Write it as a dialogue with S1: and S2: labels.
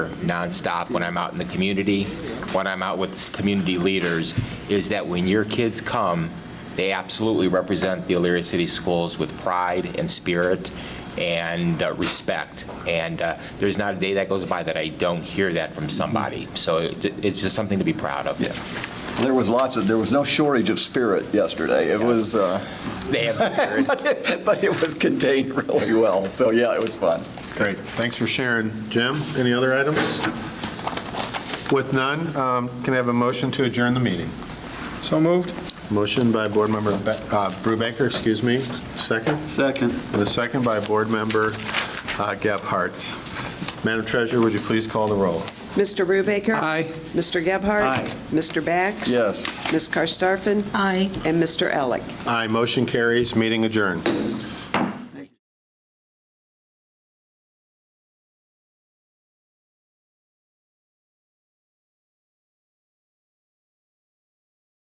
S1: nonstop when I'm out in the community, when I'm out with community leaders, is that when your kids come, they absolutely represent the Elyria City Schools with pride and spirit and uh, respect. And uh, there's not a day that goes by that I don't hear that from somebody. So it- it's just something to be proud of.
S2: Yeah. There was lots of, there was no shortage of spirit yesterday. It was, uh,
S1: They have spirit.
S2: but it was contained really well. So yeah, it was fun.
S3: Great, thanks for sharing. Jim, any other items? With none, um, can I have a motion to adjourn the meeting?
S4: So moved.
S3: Motion by Board Member Be- uh, Brubaker, excuse me, second?
S4: Second.
S3: And a second by Board Member uh, Gephardt. Madam Treasurer, would you please call the roll?
S5: Mr. Brubaker?
S4: Aye.
S5: Mr. Gebhardt?
S4: Aye.
S5: Mr. Bax?
S2: Yes.
S5: Ms. Karstafen? Aye. And Mr. Elick?
S3: Aye, motion carries, meeting adjourned.